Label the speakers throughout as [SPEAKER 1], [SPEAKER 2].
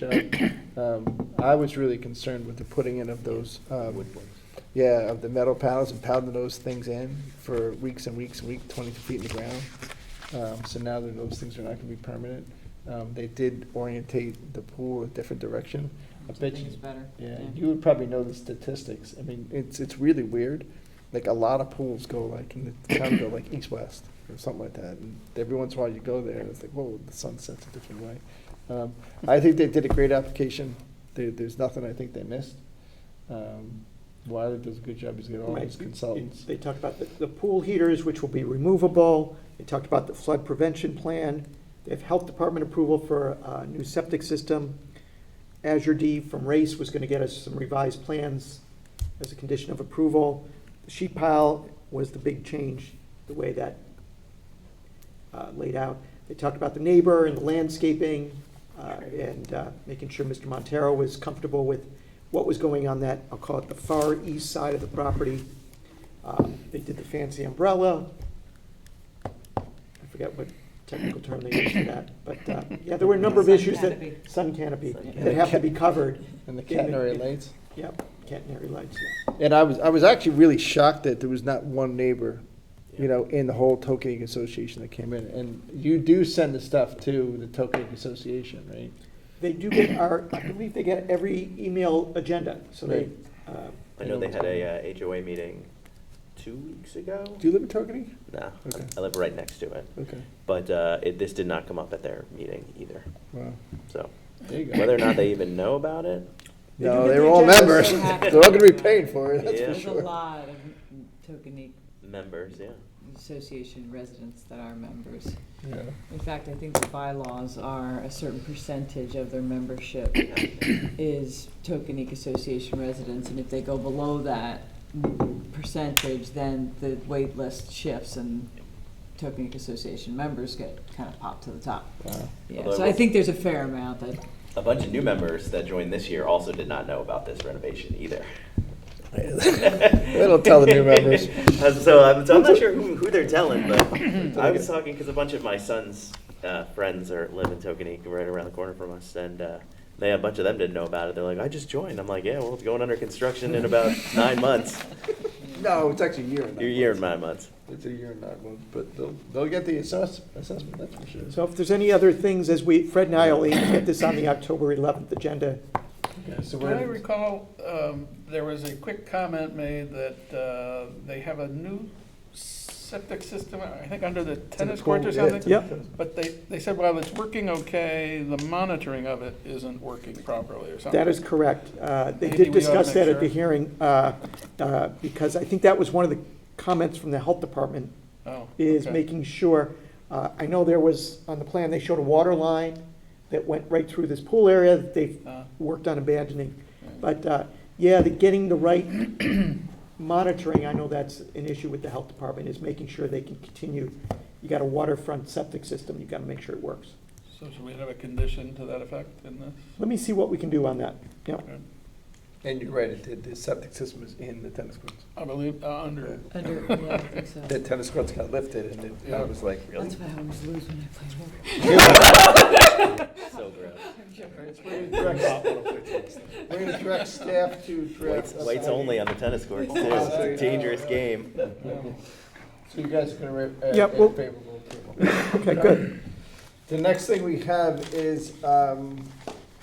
[SPEAKER 1] job. Um, I was really concerned with the putting in of those, um, yeah, of the metal panels and pounding those things in for weeks and weeks and weeks, twenty feet in the ground. Um, So now that those things are not gonna be permanent, um, they did orientate the pool a different direction. I bet you,
[SPEAKER 2] It's better.
[SPEAKER 1] yeah, you would probably know the statistics. I mean, it's, it's really weird. Like, a lot of pools go like, in the town go like east-west or something like that. And every once in a while you go there, and it's like, whoa, the sun sets a different way. Um, I think they did a great application. There, there's nothing I think they missed. Um, Wiley does a good job. He's got all
[SPEAKER 3] Right.
[SPEAKER 1] his consultants.
[SPEAKER 3] They talked about the, the pool heaters, which will be removable. They talked about the flood prevention plan. They have health department approval for a new septic system. Azure D from Race was gonna get us some revised plans as a condition of approval. The Sheet pile was the big change, the way that uh, laid out. They talked about the neighbor and the landscaping, uh, and uh, making sure Mr. Montero was comfortable with what was going on that, I'll call it the far east side of the property. Um, They did the fancy umbrella. I forget what technical term they used for that, but, uh, yeah, there were a number of
[SPEAKER 2] Sun
[SPEAKER 3] issues that,
[SPEAKER 2] canopy.
[SPEAKER 3] sun canopy,
[SPEAKER 2] Sun
[SPEAKER 3] that have to be covered.
[SPEAKER 1] And the catenary lights.
[SPEAKER 3] Yep, catenary lights,
[SPEAKER 1] And I was, I was actually really shocked that there was not one neighbor, you know, in the whole Tokenic Association that came in. And you do send the stuff to the Tokenic Association, right?
[SPEAKER 3] They do get our, I believe they get every email agenda, so they, uh,
[SPEAKER 4] I know they had a uh, HOA meeting two weeks ago.
[SPEAKER 1] Do you live in Tokenic?
[SPEAKER 4] No,
[SPEAKER 1] Okay.
[SPEAKER 4] I live right next to it.
[SPEAKER 1] Okay,
[SPEAKER 4] But uh, it, this did not come up at their meeting either.
[SPEAKER 1] wow.
[SPEAKER 4] So
[SPEAKER 1] There you go.
[SPEAKER 4] whether or not they even know about it,
[SPEAKER 3] They do
[SPEAKER 1] No,
[SPEAKER 3] get
[SPEAKER 1] they
[SPEAKER 3] the
[SPEAKER 1] were all
[SPEAKER 3] agenda,
[SPEAKER 1] members.
[SPEAKER 3] so-
[SPEAKER 1] They're all gonna be paying for it, that's
[SPEAKER 4] Yeah.
[SPEAKER 1] for
[SPEAKER 2] There's a
[SPEAKER 1] sure.
[SPEAKER 2] lot of Tokenique
[SPEAKER 4] members, yeah.
[SPEAKER 2] Association residents that are members.
[SPEAKER 1] Yeah.
[SPEAKER 2] In fact, I think the bylaws are a certain percentage of their membership is Tokenique Association residents, and if they go below that percentage, then the wait list shifts and Tokenique Association members get kind of popped to the top.
[SPEAKER 1] Wow.
[SPEAKER 2] Yeah,
[SPEAKER 4] Although-
[SPEAKER 2] so I think there's a fair amount that
[SPEAKER 4] A bunch of new members that joined this year also did not know about this renovation either.
[SPEAKER 1] They'll tell the new members.
[SPEAKER 4] Uh, so, I'm, so I'm not sure who, who they're telling, but I was talking because a bunch of my son's uh, friends are live in Tokenique, right around the corner from us, and uh, they a bunch of them didn't know about it. They're like, "I just joined." I'm like, "Yeah, well, it's going under construction in about nine months.
[SPEAKER 1] No, it's actually a year and nine
[SPEAKER 4] Your year and
[SPEAKER 1] months.
[SPEAKER 4] nine months."
[SPEAKER 1] It's a year and nine months, but they'll, they'll get the assess, assessment, that's for sure.
[SPEAKER 3] So if there's any other things, as we, Fred and I will aim to get this on the October 11th agenda.
[SPEAKER 1] Okay, so
[SPEAKER 5] Do I
[SPEAKER 1] we're,
[SPEAKER 5] recall, um, there was a quick comment made that uh, they have a new septic system, I think under the tennis court or
[SPEAKER 1] pool, yeah.
[SPEAKER 5] something?
[SPEAKER 3] Yep.
[SPEAKER 5] But they, they said while it's working okay, the monitoring of it isn't working properly or something.
[SPEAKER 3] That is correct. Uh, They
[SPEAKER 5] Maybe
[SPEAKER 3] did
[SPEAKER 5] we ought to
[SPEAKER 3] discuss that
[SPEAKER 5] make
[SPEAKER 3] at the
[SPEAKER 5] sure.
[SPEAKER 3] hearing, uh, uh, because I think that was one of the comments from the Health Department,
[SPEAKER 5] Oh,
[SPEAKER 3] is
[SPEAKER 5] okay.
[SPEAKER 3] making sure, uh, I know there was, on the plan, they showed a water line that went right through this pool area that they've
[SPEAKER 5] Uh,
[SPEAKER 3] worked on abandoning.
[SPEAKER 5] right.
[SPEAKER 3] But, uh, yeah, the getting the right monitoring, I know that's an issue with the health department, is making sure they can continue. You got a waterfront septic system, you gotta make sure it works.
[SPEAKER 5] So should we have a condition to that effect in this? Uh,
[SPEAKER 3] Let me see what we can do on that. Yeah,
[SPEAKER 5] Okay.
[SPEAKER 1] and you're right, the, the septic system is in the tennis courts.
[SPEAKER 5] I believe, uh, under,
[SPEAKER 2] under, yeah, I think so.
[SPEAKER 1] The tennis courts got lifted and it, I was like, really?
[SPEAKER 2] That's why I always lose when I play poker.
[SPEAKER 4] So gross.
[SPEAKER 1] We're gonna direct- we're gonna direct staff to
[SPEAKER 4] Whites,
[SPEAKER 1] direct. us
[SPEAKER 4] whites
[SPEAKER 1] out.
[SPEAKER 4] only on the tennis courts. Too. It's a dangerous game.
[SPEAKER 1] So you guys are gonna, re- uh,
[SPEAKER 3] Yeah,
[SPEAKER 1] uh,
[SPEAKER 3] well-
[SPEAKER 1] favorable approval.
[SPEAKER 3] okay, good.
[SPEAKER 1] The next thing we have is, um,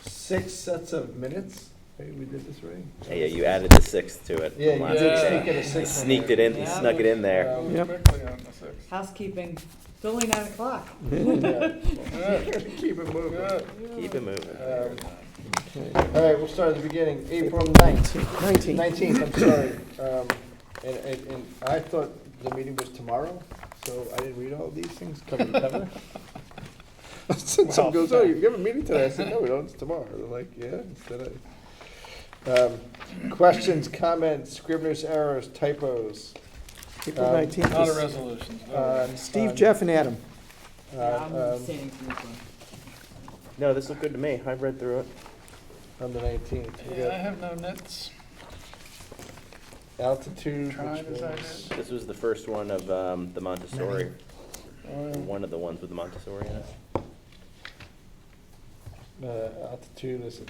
[SPEAKER 1] six sets of minutes. Hey, we did this right?
[SPEAKER 4] Yeah, yeah, you added the sixth to it. from
[SPEAKER 1] Yeah, you
[SPEAKER 4] last
[SPEAKER 1] did
[SPEAKER 4] time.
[SPEAKER 1] sneak in a sixth.
[SPEAKER 4] Sneaked it in,
[SPEAKER 2] Yeah.
[SPEAKER 4] snuck it in there.
[SPEAKER 1] Um,
[SPEAKER 5] move
[SPEAKER 3] Yep.
[SPEAKER 5] quickly Uh, on the sixth.
[SPEAKER 2] Housekeeping, it's only nine o'clock.
[SPEAKER 1] yeah.
[SPEAKER 5] Good,
[SPEAKER 1] Keep it moving.
[SPEAKER 5] good.
[SPEAKER 4] Keep it moving.
[SPEAKER 1] Um, All right, we'll start at the beginning, April ninth.
[SPEAKER 3] Nineteen.
[SPEAKER 1] Nineteenth, I'm sorry. Um, And, and, and I thought the meeting was tomorrow, so I didn't read all these things cover to cover. Someone goes, oh, you have a meeting today? I said, no, we don't, it's tomorrow. They're like, yeah, instead I. Um, Questions, comments, scrivener's errors, typos.
[SPEAKER 3] April
[SPEAKER 1] Um,
[SPEAKER 3] nineteenth.
[SPEAKER 5] Not a
[SPEAKER 3] is,
[SPEAKER 5] resolution. no.
[SPEAKER 1] uh,
[SPEAKER 3] Steve,
[SPEAKER 1] um,
[SPEAKER 3] Jeff, and Adam.
[SPEAKER 1] uh,
[SPEAKER 2] Yeah, I'm
[SPEAKER 1] um,
[SPEAKER 2] abstaining from this one.
[SPEAKER 4] No, this looked good to me. I've read through it.
[SPEAKER 1] On the nineteenth, we
[SPEAKER 5] Yeah, I
[SPEAKER 1] got
[SPEAKER 5] have no nits.
[SPEAKER 1] altitude,
[SPEAKER 5] Try
[SPEAKER 1] which
[SPEAKER 5] this, I
[SPEAKER 1] was,
[SPEAKER 4] This was the first one of um, the Montessori,
[SPEAKER 5] Oh,
[SPEAKER 4] one of the ones with the Montessori in it.
[SPEAKER 1] uh, altitude is